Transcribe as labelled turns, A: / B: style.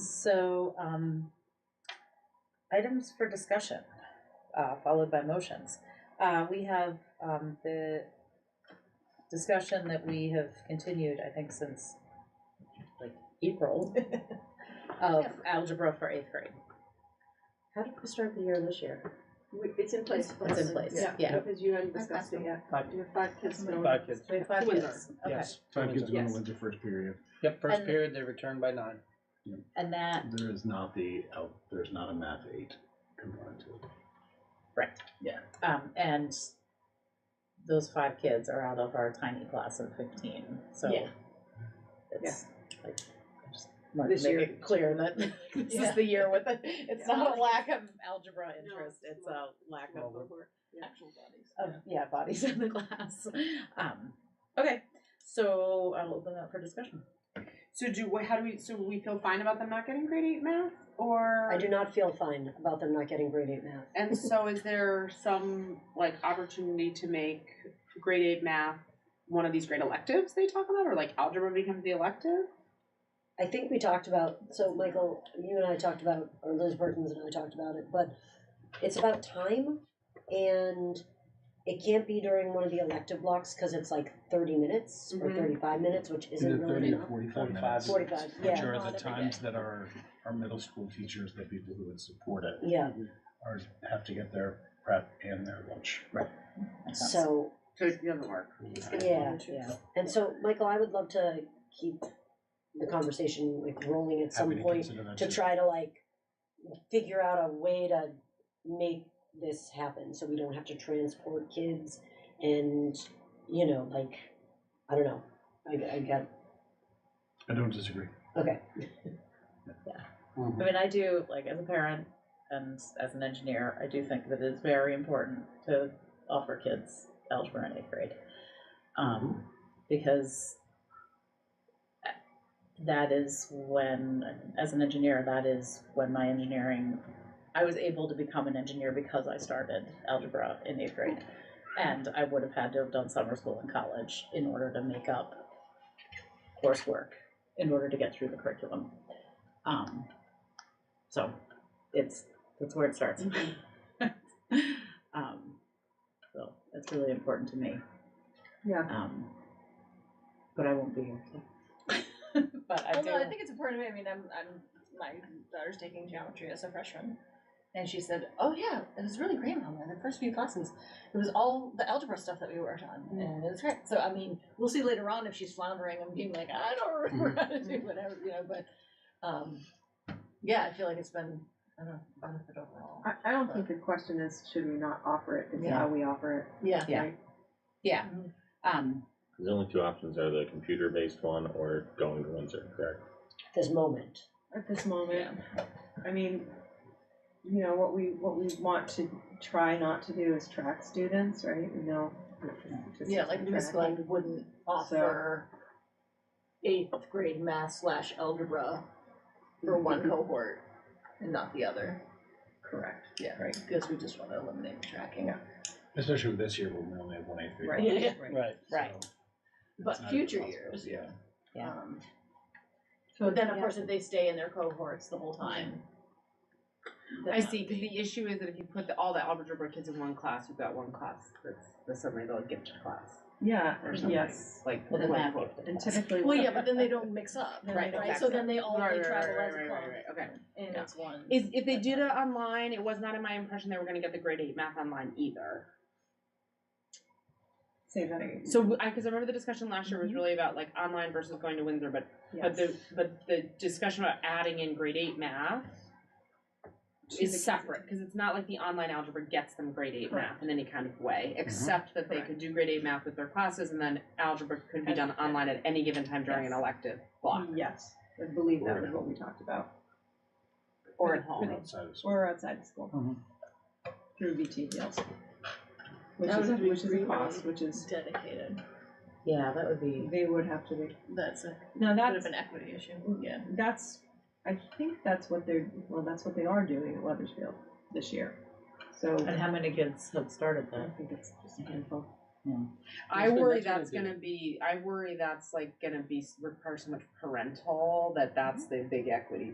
A: also um, items for discussion, uh, followed by motions. Uh, We have um, the discussion that we have continued, I think, since like April of algebra for eighth grade.
B: How did we start the year this year?
C: We- It's in place. for
A: It's in
C: us.
A: place,
C: Yeah,
A: yeah.
C: Because you hadn't discussed it yet.
D: Five.
C: You have five kids. going.
D: Five kids.
A: We have five
C: Two in
A: kids, okay.
D: Yes.
E: Five kids are going
C: Yes.
E: to Windsor first period.
D: Yep, first
A: And-
D: period, they return by nine.
A: And that,
E: There is not the, al- there's not a math eight component to it.
A: um, and those five kids are out of our tiny class of fifteen, so.
C: Yeah.
A: It's like, I just want
C: This
A: to make
C: year-
A: it clear that this
C: Yeah.
A: is the year with it, it's
C: Yeah.
A: not a lack of algebra
C: No,
A: interest,
C: it's
A: it's a lack
D: Well,
A: of,
D: we're-
C: Cohort, Actual bodies.
A: of, yeah, bodies in the class. Um, okay, so I'll open that for discussion.
F: So do what? How do we? So we feel fine about them not getting grade eight math, or
B: I do not feel fine about them not getting grade eight math.
F: And so, is there some like opportunity to make grade eight math one of these great electives they talk about, or like algebra becomes the elective?
B: I think we talked about, so Michael, you and I talked about, or Liz Burton's and I talked about it, but it's about time and it can't be during one of the elective blocks because it's like thirty minutes or
F: Mhm.
B: thirty-five minutes, which
E: Either
B: isn't really
E: thirty or
B: enough.
E: forty-five
D: 45.
E: minutes.
B: Forty-five,
E: Which
B: yeah,
E: are
A: Not
E: the
A: every
E: times
A: day.
E: that our, our middle school teachers, the people who would support it,
B: yeah.
E: are, have to get their prep and their lunch. Right.
B: So,
F: So it doesn't work.
B: yeah.
A: Yeah,
B: And so, Michael, I would love to keep the conversation like rolling at some
E: Happy to
B: point
E: consider that
B: to
E: too.
B: try to like figure out a way to make this happen so we don't have to transport kids and you know like i don't know i, I got
E: I don't disagree.
B: okay
A: I mean, I do, like, as a parent and as an engineer, I do think that it's very important to offer kids algebra in eighth grade. Um, because that is when, as an engineer, that is when my engineering, I was able to become an engineer because I started algebra in eighth grade. And I would have had to have done summer school in college in order to make up coursework, in order to get through the curriculum. Um, so it's that's where it starts.
G: Mm-hmm.
A: um, so it's really important to me.
C: Yeah.
A: Um, but I won't be here. but I
G: well,
A: do.
G: no, I think it's important. to me. I mean, I'm, I'm my daughter's taking geometry as a freshman, and she said, "Oh yeah, it was really great, Mama. The first few classes, it was all the algebra stuff that we worked on,
A: Mm.
G: and it was great." So, I mean, we'll see later on if she's floundering and being like, "I don't
A: Mm.
G: remember how to do whatever," you know. But um, yeah, I feel like it's been I don't know, benefit overall.
C: I, I don't think the question is should we not offer it, it's
A: Yeah.
C: how we offer
G: Yeah.
C: it.
A: Yeah.
C: right?
A: yeah.
G: Mhm.
A: Um,
H: The only two options are the computer-based one or going to Windsor, correct?
B: at this moment
C: At this moment, I mean, you know, what we, what we want to try not to do is track students, right? You know. just
G: Yeah, like Miss
C: track.
G: Glenn wouldn't offer eighth grade math slash algebra for one cohort and not the other. Correct. Yeah, right, because we just want to eliminate tracking.
E: Especially with this year when we only have one eighth grade.
C: Right.
G: Yeah,
D: Right.
A: Right.
E: So it's
G: But
E: not
G: future
E: impossible.
G: years.
E: Yeah.
A: Yeah.
G: um,
C: So
G: But then, of
C: yeah.
G: course, if they stay in their cohorts the whole time.
F: I see. 'cause the issue is that if you put the, all the algebra kids in one class, you've got one class that's, that's suddenly the gifted class
C: Yeah,
F: or something.
C: yes.
F: Like
A: well, the math
F: like-
A: gifted
C: And
A: class.
C: typically.
G: Well, yeah, but then they don't mix up,
C: Then they
G: right?
C: don't
G: Right,
C: mix
G: so
C: up.
G: then they all,
F: Right,
G: they
F: right,
G: travel
F: right,
G: as a
F: right,
G: club,
F: right, right, Okay.
G: and
F: Yeah.
G: it's one.
F: Is if they did it online, it was not in my impression they were going to get the grade eight math online either.
C: Say that again.
F: So I because I remember the discussion last year was really about like online versus going to Windsor, but but
C: Yes.
F: the but the discussion about adding in grade eight math
C: To the-
F: is separate because it's not like the online algebra gets them grade eight math in any kind of way, except that they
C: Correct.
F: could do grade eight math with their classes, and then algebra could be
G: As-
F: done online at any given time during
G: Yes.
F: an elective block
C: Yes, I believe that was what we talked about.
F: or at
E: Or
F: home.
E: outside of school.
C: Or outside of school.
D: Mhm.
C: Through VT deals. Which
G: That
C: is,
G: would be
C: which is a
G: really-
C: cost, which is,
G: Dedicated,
A: yeah, that would be.
C: they would have to be,
G: that's Mm. a
C: now
G: bit
C: that's,
G: of an equity issue, yeah.
C: that's, I think that's what they're, well, that's what they are doing at Weathersfield this year. So
A: And how many kids have started
C: I
A: that?
C: think it's just a handful.
F: I
D: That's what-
F: worry
D: that's what I
F: that's
D: do.
F: gonna be. I worry that's like gonna be require so much parental that that's the big equity